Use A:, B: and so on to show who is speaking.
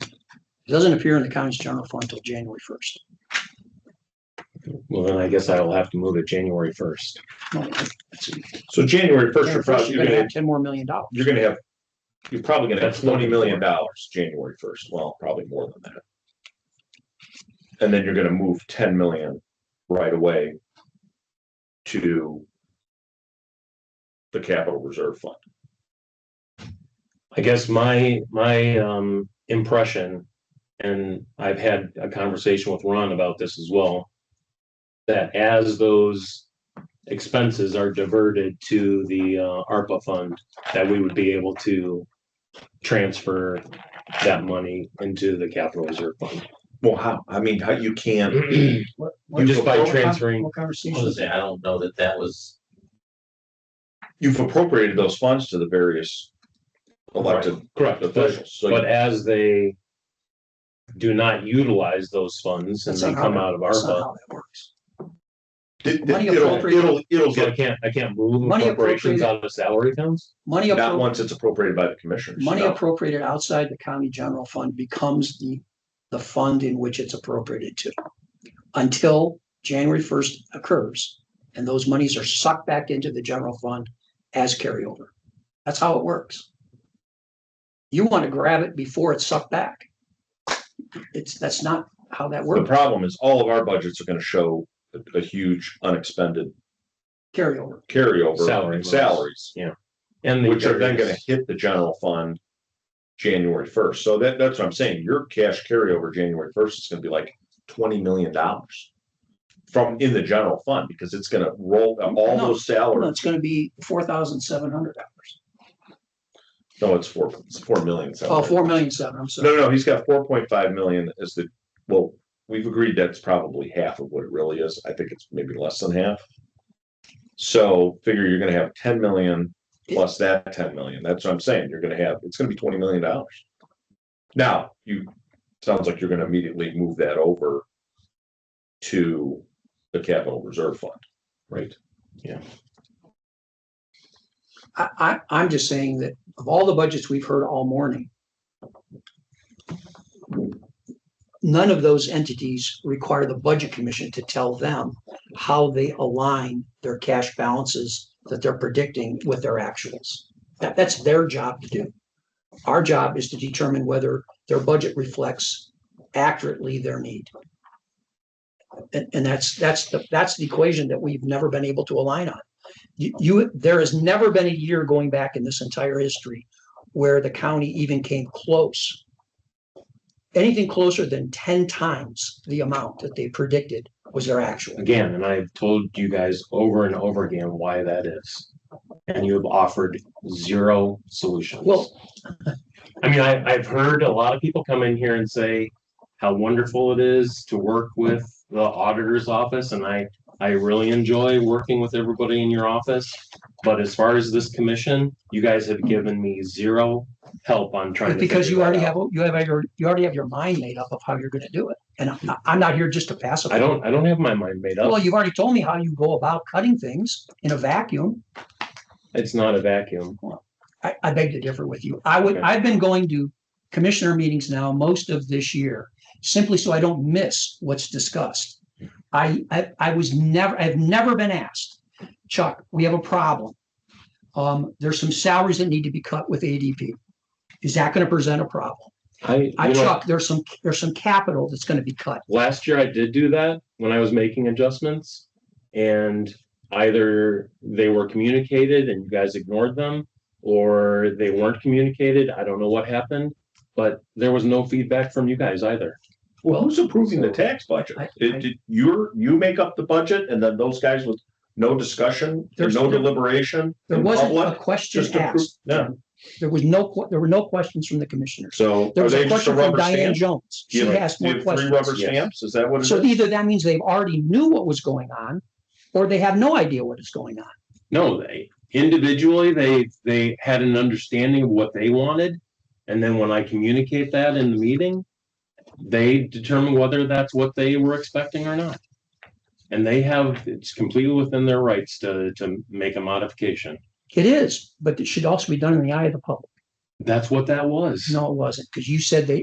A: It doesn't appear in the county's general fund until January first.
B: Well, then I guess I will have to move it January first.
C: So January first, you're
A: January first,
C: probably,
A: you're
C: you're
A: gonna
C: gonna,
A: have ten more million dollars.
C: you're gonna have, you're probably gonna have
B: That's not
C: twenty million
B: before.
C: dollars January first. Well, probably more than that. And then you're gonna move ten million right away to the capital reserve fund.
B: I guess my, my, um, impression, and I've had a conversation with Ron about this as well. That as those expenses are diverted to the, uh, ARPA fund, that we would be able to transfer that money into the capital reserve fund.
C: Well, how, I mean, how you can,
A: What-
B: You just
A: what-
B: by
A: what con-
B: transferring-
A: What
D: I was
A: conversation?
D: gonna say, I don't know that that was,
C: you've appropriated those funds to the various elected
B: Correct.
C: officials. So
B: But
C: you-
B: as they do not utilize those funds and
A: That's
B: they
A: not
B: come
A: how-
B: out of
A: That's not
B: ARPA,
A: how that works.
C: it-
A: money
C: it'll,
A: appropriated-
C: it'll, it'll
B: so I
C: get,
B: can't, I can't move
A: Money
B: appropriations
A: appropriated-
B: out of salary accounts?
A: Money
C: not
A: appropriated,
C: once it's appropriated by the commissioners.
A: money
C: no.
A: appropriated outside the county general fund becomes the, the fund in which it's appropriated to. Until January first occurs and those monies are sucked back into the general fund as carryover. That's how it works. You want to grab it before it's sucked back. It's, that's not how that
C: The
A: works,
C: problem is all of our budgets are gonna show a, a huge unexpended
A: carryover.
C: carryover
B: Salary
C: in
B: loss.
C: salaries,
B: And the
C: which are then gonna
B: various-
C: hit the general fund January first. So that, that's what I'm saying. Your cash carryover January first is gonna be like twenty million dollars from in the general fund, because it's gonna roll all
A: No,
C: those
A: Well,
C: salaries.
A: It's gonna be four thousand seven hundred dollars.
C: No, it's four, it's four million.
A: Oh,
C: salaries.
A: four million seven, I'm sorry.
C: No, no, he's got four point five million as the, well, we've agreed that's probably half of what it really is. I think it's maybe less than half. So figure you're gonna have ten million plus that ten million. That's what I'm saying. You're gonna have, it's gonna be twenty million dollars. Now, you, sounds like you're gonna immediately move that over to the capital reserve fund, right?
A: I, I, I'm just saying that of all the budgets we've heard all morning, none of those entities require the budget commission to tell them how they align their cash balances that they're predicting with their actuals. That, that's their job to do. Our job is to determine whether their budget reflects accurately their need. And, and that's, that's the, that's the equation that we've never been able to align on you, you, there has never been a year going back in this entire history where the county even came close. Anything closer than ten times the amount that they predicted was their actual.
B: Again, and I've told you guys over and over again why that is. And you have offered zero solutions.
A: Well-
B: I mean, I, I've heard a lot of people come in here and say how wonderful it is to work with the auditor's office and I, I really enjoy working with everybody in your office. But as far as this commission, you guys have given me zero help on trying to.
A: Because
B: figure
A: you
B: that
A: already
B: out.
A: have, you have your, you already have your mind made up of how you're gonna do it. And I, I'm not here just to pass it.
B: I don't, I don't have my mind made
A: Well,
B: up.
A: you've already told me how you go about cutting things in a vacuum.
B: It's not a vacuum.
A: I, I beg to differ with you. I would,
B: Okay.
A: I've been going to commissioner meetings now most of this year, simply so I don't miss what's discussed. I, I, I was never, I've never been asked, Chuck, we have a problem. Um, there's some salaries that need to be cut with ADP. Is that gonna present a problem?
B: I,
A: I,
B: you know,
A: Chuck, there's some, there's some capital that's gonna be cut.
B: last year I did do that when I was making adjustments. And either they were communicated and you guys ignored them, or they weren't communicated. I don't know what happened. But there was no feedback from you guys either.
C: Well, who's approving the
A: so-
C: tax budget?
A: I- I-
C: It, did- you're, you make up the budget and then those guys with no discussion, and
A: There's-
C: no deliberation
A: There
C: in
A: wasn't a
C: public?
A: question
C: Just approve,
A: asked.
C: no,
A: There was no, que- there were no questions from the commissioners.
C: so
A: There
C: are
A: was a
C: they just
A: question
C: a
A: from
C: rubber
A: Diane
C: stamp?
A: Jones. She
C: You have-
A: asked
C: you
A: more
C: have three
A: questions.
C: rubber
B: yes.
C: stamps, is that what it
A: So
C: is?
A: either that means they've already knew what was going on, or they have no idea what is going on.
B: No, they individually, they, they had an understanding of what they wanted. And then when I communicate that in the meeting, they determine whether that's what they were expecting or not. And they have, it's completely within their rights to, to make a modification.
A: It is, but it should also be done in the eye of the public.
B: That's what that was.
A: No, it wasn't, because you said they,